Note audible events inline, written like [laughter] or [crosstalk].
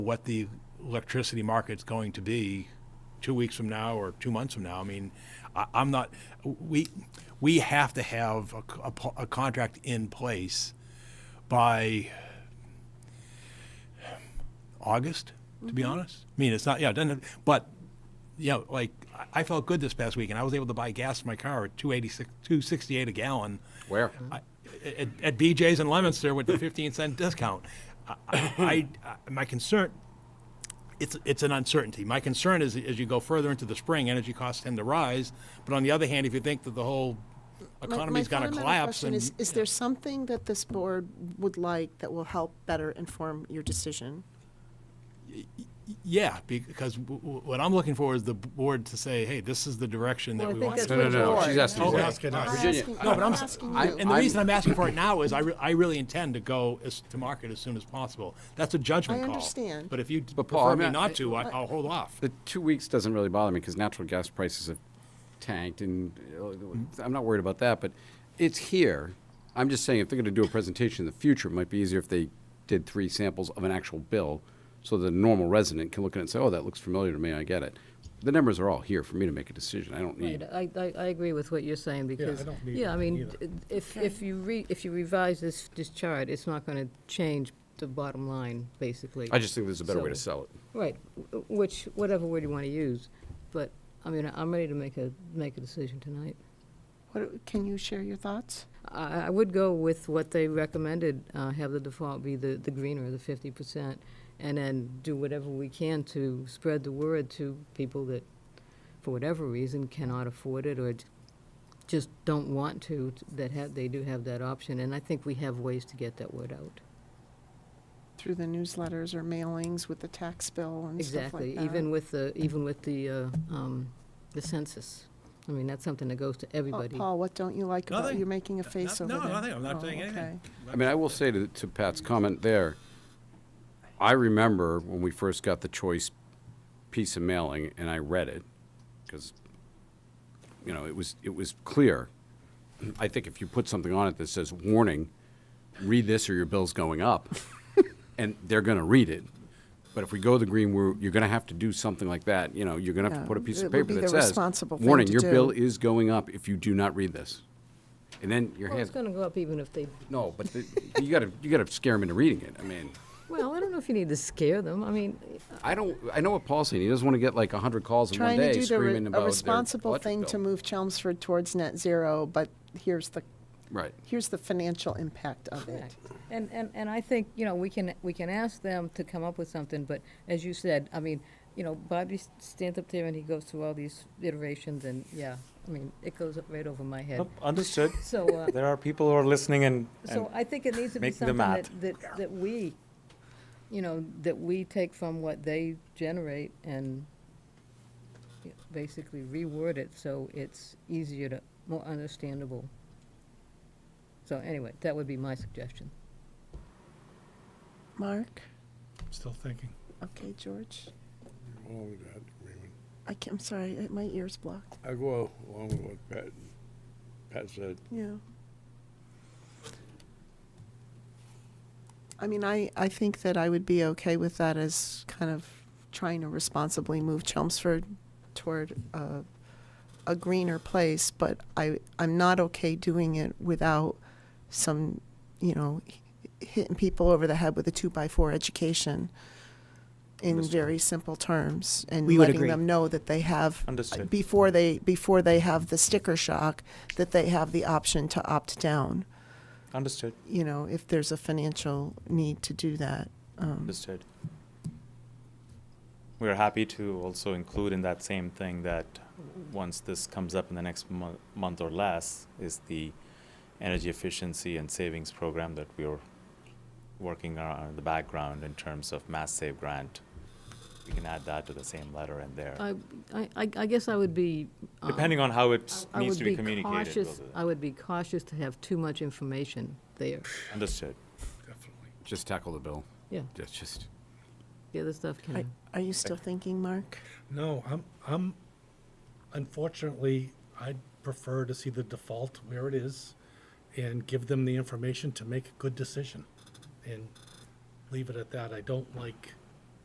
what the electricity market's going to be two weeks from now or two months from now. I mean, I, I'm not, we, we have to have a, co- a po- a contract in place by August, to Mm-hmm. be honest. I mean, it's not, yeah, it doesn't, but, you know, like, I- I felt good this past weekend. I was able to buy gas for my car at 286, 268 a gallon. Where? I- At, at BJ's in Leominster with the 15 cent discount. I, I, I- my concern, it's, it's an uncertainty. My concern is as you go further into the spring, energy costs tend to rise. But on the other hand, if you think that the whole My- my economy's going to fundamental collapse, question and Is, is there something that this board would like that will help better inform your decision? yeah, because w- w- what I'm looking for is the board to say, hey, this is the direction that Well, I we think want. that's to No, no, go." no, Board. she's asking. Oh, Zach. asking us. Virginia, Asking- No, but I'm, I'm s- asking I- you. and the I'm- reason I'm asking for it now [laughs] is I, re- I really intend to go as, to market as soon as possible. That's a judgment I call. understand. But if you But Paul, prefer I'm me not- not to, I, I'll hold off. The two weeks doesn't really bother me because natural gas prices have tanked, and uh, I'm not worried about that. But it's here. I'm just saying, if they're going to do a presentation in the future, it might be easier if they did three samples of an actual bill, so the normal resident can look at it and say, "Oh, that looks familiar to me. I get it." The numbers are all here for me to make a decision. I don't Right, need. I, I, I agree with what you're saying because. don't need yeah, I it mean, either. d- if, if you re, if you revise this, this chart, it's not gonna change the bottom line, basically. I just think there's a better way to So- sell it. Right, w- which, whatever word you wanna use, but, I mean, I'm ready to make a, make a decision tonight. What, can you share your thoughts? I, I would go with what they recommended, uh, have the default be the, the greener, the fifty percent, and then do whatever we can to spread the word to people that, for whatever reason, cannot afford it or j- just don't want to, t- that have, they do have that option, and I think we have ways to get that word out. Through the newsletters or mailings with the tax bill and stuff like Exactly, that? even with the, even with the, uh, um, the census. I mean, that's something that goes to Oh, everybody. Paul, what don't you like about, Nothing. you're making a face over no, there? nothing. I'm not Oh, saying anything. okay. I mean, I will say to, to Pat's comment there, I remember when we first got the choice piece of mailing and I read it because, you know, it was, it was clear. I think if you put something on it that says, warning, read this or your bill's going [laughs] up, and they're going to read it. But if we go the green route, you're going to have to do something like that. You know, you're going to have Yeah, to put a piece it of would paper be that the says, responsible thing warning, to your bill do." is going up if you do not read this. And then your Well, hands. it's gonna go up even if they No, but the, you gotta you gotta scare them into reading it. I mean, Well, I don't know if you need to scare them. I mean, I don't. I know what Paul's saying. He doesn't want to get like hundred calls in Trying one to day do the re- screaming about a their responsible electric thing to bill. move Chelmsford towards net zero, but here's the, Right. here's the financial impact of it. Correct. And, and, and I think, you know, we can, we can ask them to come up with something, but as you said, I mean, you know, Bobby s- stands up there and he goes through all these iterations and, yeah, I mean, it goes up right over my head. Nope, Understood. So, uh, There are people who are listening and, [laughs] and so I think it needs to be making the something map. that, that, that we, you know, that we take from what they generate and y- basically reword it so it's easier to, more understandable. So anyway, that would be my suggestion. Mark? Still thinking. Okay, George? along with that, Raymond. I can, I'm sorry, uh, my ear's blocked. I go along with what Pat, Pat said. Yeah. I mean, I, I think that I would be okay with that as kind of trying to responsibly move Chelmsford toward a, a greener place, but I, I'm not okay doing it without some, you know, h- hitting people over the head with a two-by-four education in very simple terms and We would letting agree. them know that they have Understood. before they before they have the sticker shock that they have the option to opt down understood, you know if there's a financial need to do that um, understood. We are happy to also include in that same thing that once this comes up in the next mo- month or less is the energy efficiency and savings program that we are working on in the background in terms of mass save grant. We can add that to the same letter in there, I, I, I guess I would be. um, depending on how it I needs would to be communicated. cautious- whether- I would be cautious to have too much information there. Understood. Just tackle the bill. Yeah, That's just. the other stuff are, can, are you still thinking mark No, I'm, I'm, unfortunately, I'd prefer to see the default where it is and give them the information to make a good decision and leave it at that. I don't like